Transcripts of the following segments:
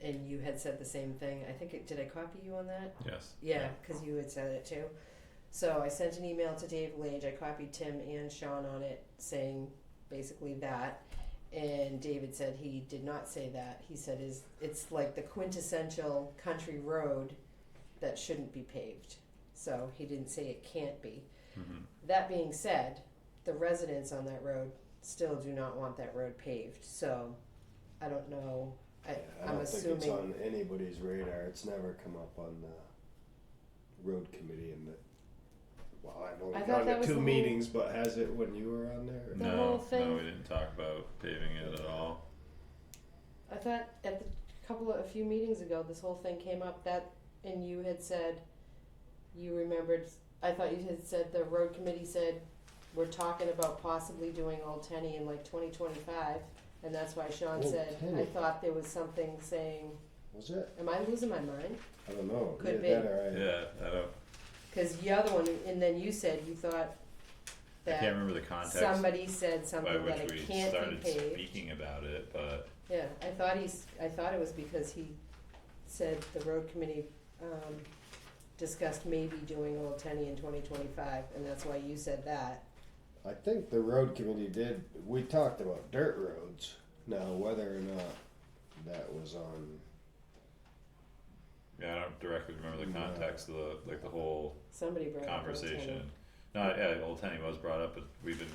and you had said the same thing. I think it, did I copy you on that? Yes. Yeah, because you had said it too. So I sent an email to Dave Lange. I copied Tim and Sean on it, saying basically that. And David said he did not say that. He said is it's like the quintessential country road that shouldn't be paved. So he didn't say it can't be. Mhm. That being said, the residents on that road still do not want that road paved. So I don't know. I, I I'm don't think it's assuming on anybody's radar. It's never come up on the road committee and the. Well, I've I only thought gone that to was the two whole- meetings, but has it when you were on there? The no, whole no, thing- we didn't talk about paving it at all. I thought at the couple of a few meetings ago, this whole thing came up that, and you had said, you remembered. I thought you had said the road committee said, we're talking about possibly doing Old Tenny in like 2025, and that's why Sean Old said I Tenny. thought there was something saying, Was it? am I losing my mind? I don't know. Could Either be. that or I- Yeah, I don't. Because the other one, and then you said you thought I can't that remember the context somebody said by something that which it we can't started be paved. speaking about it, but Yeah, I thought he's, I thought it was because he said the road committee, um, discussed maybe doing Old Tenny in twenty twenty-five, and that's why you said that. I think the road committee did. We talked about dirt roads. Now, whether or not that was on, yeah, I don't directly remember the No. context of the like the whole Somebody brought up Old Tenny. conversation. No, yeah, Old Tenny was brought up, but we've been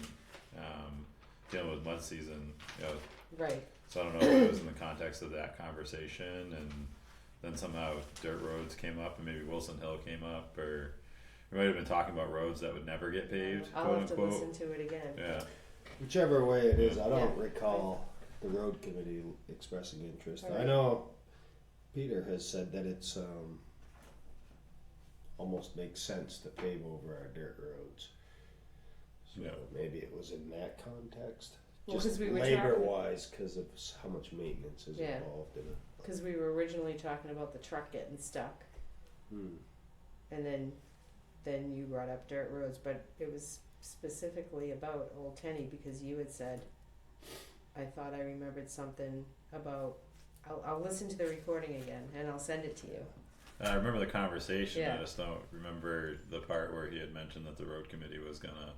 um, dealing with mud season, you know, Right, so I don't know if it was in the context of that conversation, and then somehow dirt roads came up, and maybe Wilson Hill came up, or we might have been talking about roads that would never get paved, I'll quote have to unquote. listen to it again. Yeah, whichever way it is, I don't Yeah. recall the road committee expressing interest. I Alright. know Peter has said that it's um, almost makes sense to pave over our dirt roads. So Yeah. maybe it was in that context. Well, Just 'cause we were labor talking- wise, because of s- how much maintenance is Yeah. involved in it. Cause we were originally talking about the truck getting stuck, Hmm. and then, then you brought up dirt roads, but it was specifically about Old Tenny, because you had said, I thought I remembered something about, I'll, I'll listen to the recording again, and I'll send it to you. I remember the conversation. I Yeah. just don't remember the part where he had mentioned that the road committee was gonna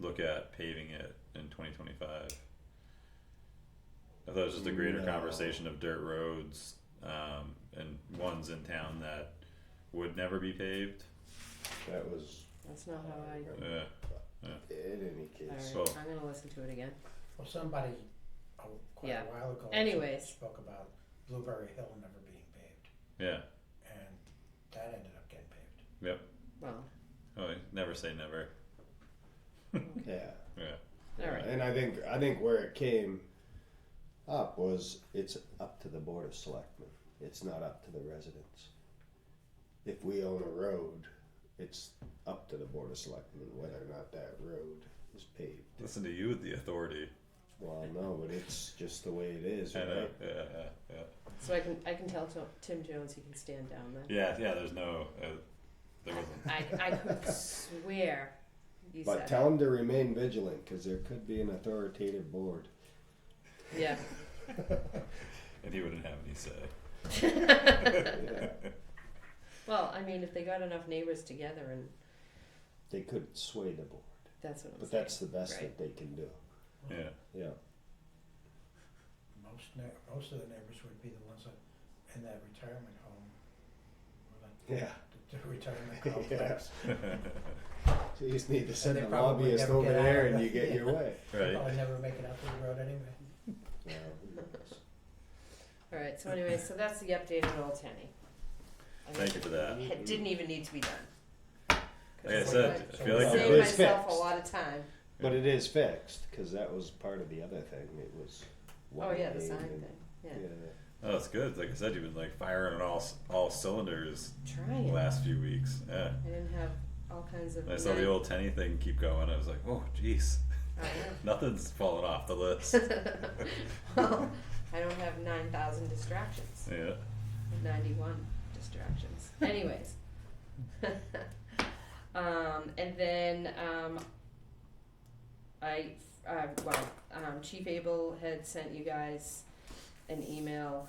look at paving it in 2025. I thought it was just a greater No. conversation of dirt roads um, and ones in town that would never be paved. Uh, That was. uh, That's not how I. Yeah. In any case, So- Alright, I'm gonna listen to it again. Well, somebody, oh, quite Yeah. a while ago. Anyways. Spoke about Blueberry Hill never being paved, Yeah. and that ended up getting paved. Well, Oh, never say never. yeah. Yeah. alright, And I think I think where it came up was it's up to the board of selectmen. It's not up to the residents. If we own a road, it's up to the board of selectmen whether or not that road is paved. Listen to you with the authority. Well, no, but it's just the way it is, I know. right? Yeah, yeah, yeah. so I can, I can tell To- Tim Jones he can stand down then. Yeah, yeah. There's no. Uh, there wasn't. I, I could swear you But said, tell them to remain vigilant because there could be an authoritative board. yeah. And he wouldn't have any say. Yeah. Well, I mean, if they got enough neighbors together and, they could sway the board, that's what I'm but saying. that's the best Right. that they can do. Yeah. Yeah. Most ne- most of the neighbors would be the ones that, in that retirement home, or that, Yeah. the, the retirement complex. So you just need to send they the probably lobbyist never over get out there of and you it. get your way. Right. Probably never make it out to the road anyway. Yeah, who knows? Alright, so anyway, so that's the update on Old Tenny. I Thank you for that. mean, It didn't even need to be done. 'Cause Like I it's said, I So feel I like it's Saved there big. was. myself a fixed. lot of time, But it is fixed because that was part of the other thing. It was. oh yeah, the widening sign and- thing, yeah, Oh, it's good. Like I said, you've been like firing on all c- all cylinders the trying, I last few weeks. Yeah. didn't have all kinds of. And I saw the night- old Tenny thing keep going. I was like, oh, jeez, I know. nothing's falling off the list. well, I don't have 9,000 distractions, Yeah. 91 distractions. Anyways. um, and then um, I, uh, well, um, Chief Abel had sent you guys an email